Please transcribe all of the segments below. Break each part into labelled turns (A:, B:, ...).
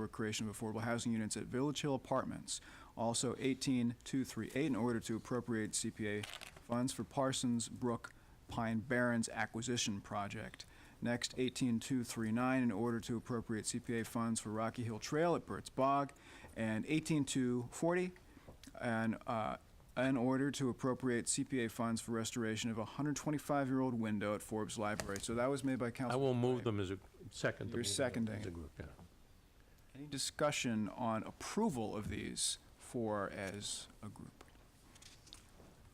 A: for creation of affordable housing units at Village Hill Apartments. Also 18238, in order to appropriate CPA funds for Parsons Brook Pine Barrens acquisition project. Next, 18239, in order to appropriate CPA funds for Rocky Hill Trail at Burt's Bog. And 18240, and uh, an order to appropriate CPA funds for restoration of a 125-year-old window at Forbes Library. So that was made by
B: I
A: Council.
B: will move them as a second.
A: You're seconding.
B: As a group, yeah.
A: Any discussion on approval of these four as a group?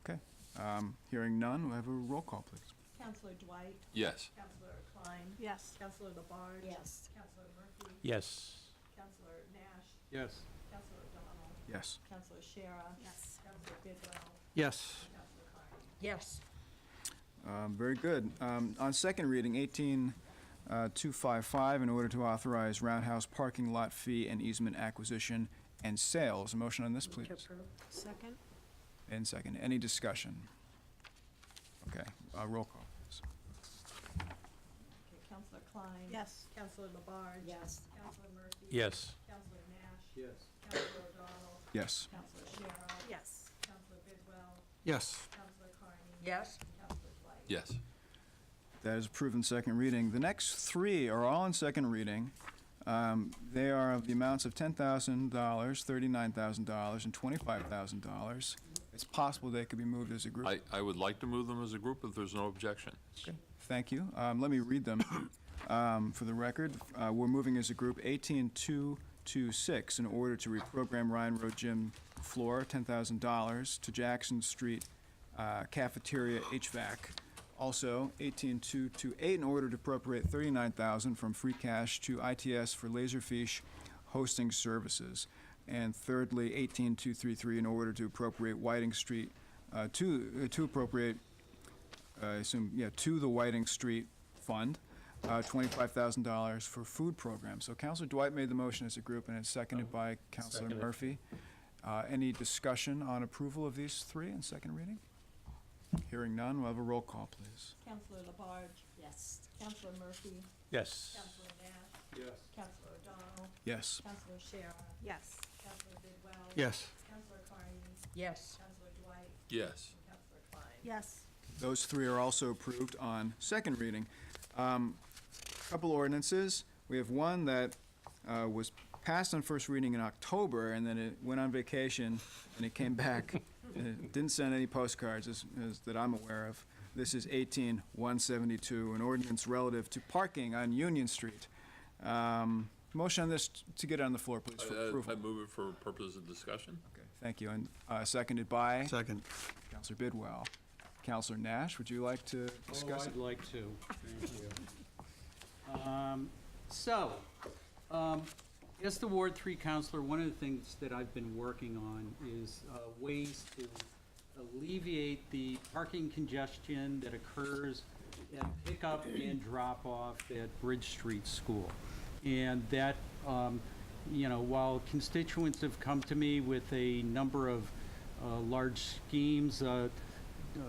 A: Okay, um, hearing none, we have a roll call, please.
C: Counselor Dwight?
D: Yes.
C: Counselor Klein?
E: Yes.
C: Counselor Labarge?
E: Yes.
C: Counselor Murphy?
B: Yes.
C: Counselor Nash?
B: Yes.
C: Counselor O'Donnell?
A: Yes.
C: Counselor Shara?
E: Yes.
C: Counselor Bidwell?
B: Yes.
C: Counselor Carney?
E: Yes.
A: Um, Very good. Um, On second reading, uh, 18255, in order to authorize roundhouse parking lot fee and easement acquisition and sales. A motion on this, please?
E: Second?
A: And second. Any discussion? Okay, uh, roll call, please.
C: Okay, Counselor Klein?
E: Yes.
C: Counselor Labarge?
E: Yes.
C: Counselor Murphy?
B: Yes.
C: Counselor Nash? Yes. Counselor O'Donnell?
A: Yes.
C: Counselor Shara?
E: Yes.
C: Counselor Bidwell?
B: Yes.
C: Counselor Carney?
E: Yes.
C: Counselor Dwight?
D: Yes.
A: That is approved in second reading. The next three are all in second reading. Um, They are of the amounts of $10,000, $39,000, and $25,000. It's possible they could be moved as a group.
D: I, I would like to move them as a group if there's no objection.
A: Thank you. Um, Let me read them um, for the record. Uh, We're moving as a group 18226 in order to reprogram Ryan Road gym floor, $10,000, to Jackson Street uh, cafeteria HVAC. Also, 18228 in order to appropriate 39000 from free cash to ITS for Laserfish hosting services. And thirdly, 18233 in order to appropriate Whiting Street, uh, to uh, to appropriate I assume, yeah, to the Whiting Street Fund, uh, $25,000 for food programs. So Counselor Dwight made the motion as a group, and it's seconded by Counselor
B: Seconded.
A: Murphy. Uh, Any discussion on approval of these three in second reading? Hearing none, we'll have a roll call, please.
C: Counselor Labarge?
E: Yes.
C: Counselor Murphy?
B: Yes.
C: Counselor Nash? Yes. Counselor O'Donnell?
A: Yes.
C: Counselor Shara?
E: Yes.
C: Counselor Bidwell?
B: Yes.
C: Counselor Carney?
E: Yes.
C: Counselor Dwight?
D: Yes.
C: Counselor Klein?
E: Yes.
A: Those three are also approved on second reading. Um, Couple ordinances. We have one that uh, was passed on first reading in October, and then it went on vacation, and it came back, and it didn't send any postcards as- as- that I'm aware of. This is 18172, an ordinance relative to parking on Union Street. Um, Motion on this t- to get on the floor, please,
D: I- uh,
A: for
D: I I
A: approval.
D: move it for purposes of discussion.
A: Okay, Thank you, and uh, seconded by
F: Second.
A: Counselor Bidwell. Counselor Nash, would you like to
G: Oh,
A: discuss it?
G: I'd like to, thank you. Um, So, um, as the Ward Three Counselor, one of the things that I've been working on is uh, ways to alleviate the parking congestion that occurs at pickup and drop-off at Bridge Street School. And that, um, you know, while constituents have come to me with a number of uh, large schemes, uh, uh,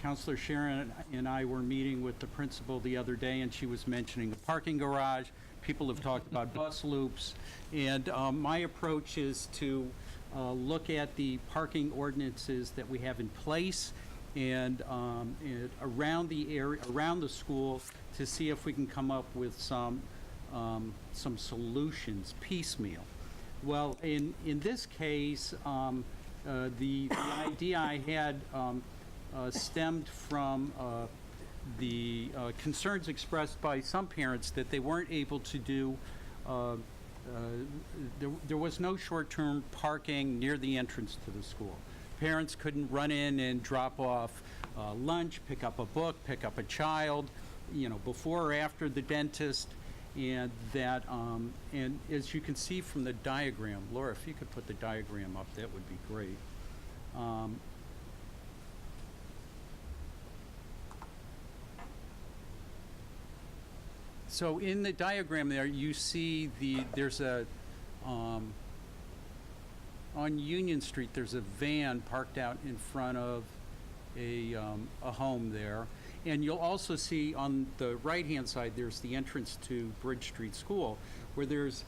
G: Counselor Sharon and I were meeting with the principal the other day, and she was mentioning a parking garage. People have talked about bus loops. And um, my approach is to uh, look at the parking ordinances that we have in place and um, and around the area, around the school, to see if we can come up with some, um, some solutions piecemeal. Well, in, in this case, um, uh, the, the idea I had, um, uh, stemmed from, uh, the uh, concerns expressed by some parents that they weren't able to do, uh, uh, there, there was no short-term parking near the entrance to the school. Parents couldn't run in and drop off uh, lunch, pick up a book, pick up a child, you know, before or after the dentist and that, um, and as you can see from the diagram, Laura, if you could put the diagram up, that would be great. Um, So in the diagram there, you see the, there's a, um, on Union Street, there's a van parked out in front of a, um, a home there. And you'll also see on the right-hand side, there's the entrance to Bridge Street School, where there's